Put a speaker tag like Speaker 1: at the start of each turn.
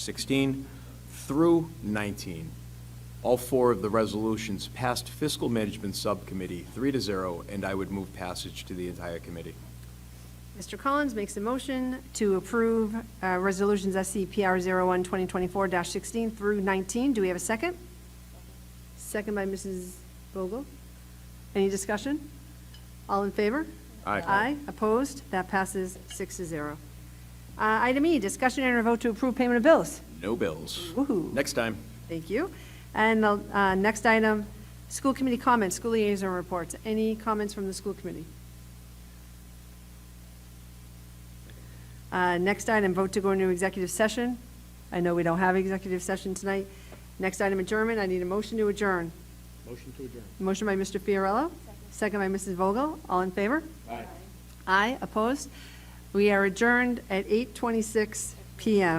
Speaker 1: 16 through 19. All four of the resolutions passed Fiscal Management Subcommittee, three to zero, and I would move passage to the entire committee.
Speaker 2: Mr. Collins makes a motion to approve uh, Resolutions SCPR 01, 2024-16 through 19. Do we have a second? Second by Mrs. Vogel. Any discussion? All in favor?
Speaker 1: Aye.
Speaker 2: Aye, opposed? That passes six to zero. Uh, Item E, discussion and a vote to approve payment of bills.
Speaker 1: No bills.
Speaker 2: Woohoo.
Speaker 1: Next time.
Speaker 2: Thank you. And the uh, next item, school committee comments, school liaison reports. Any comments from the school committee? Uh, Next item, vote to go into executive session. I know we don't have executive session tonight. Next item, adjournment. I need a motion to adjourn.
Speaker 3: Motion to adjourn.
Speaker 2: Motion by Mr. Fiorello, second by Mrs. Vogel. All in favor?
Speaker 3: Aye.
Speaker 2: Aye, opposed? We are adjourned at 8:26 PM.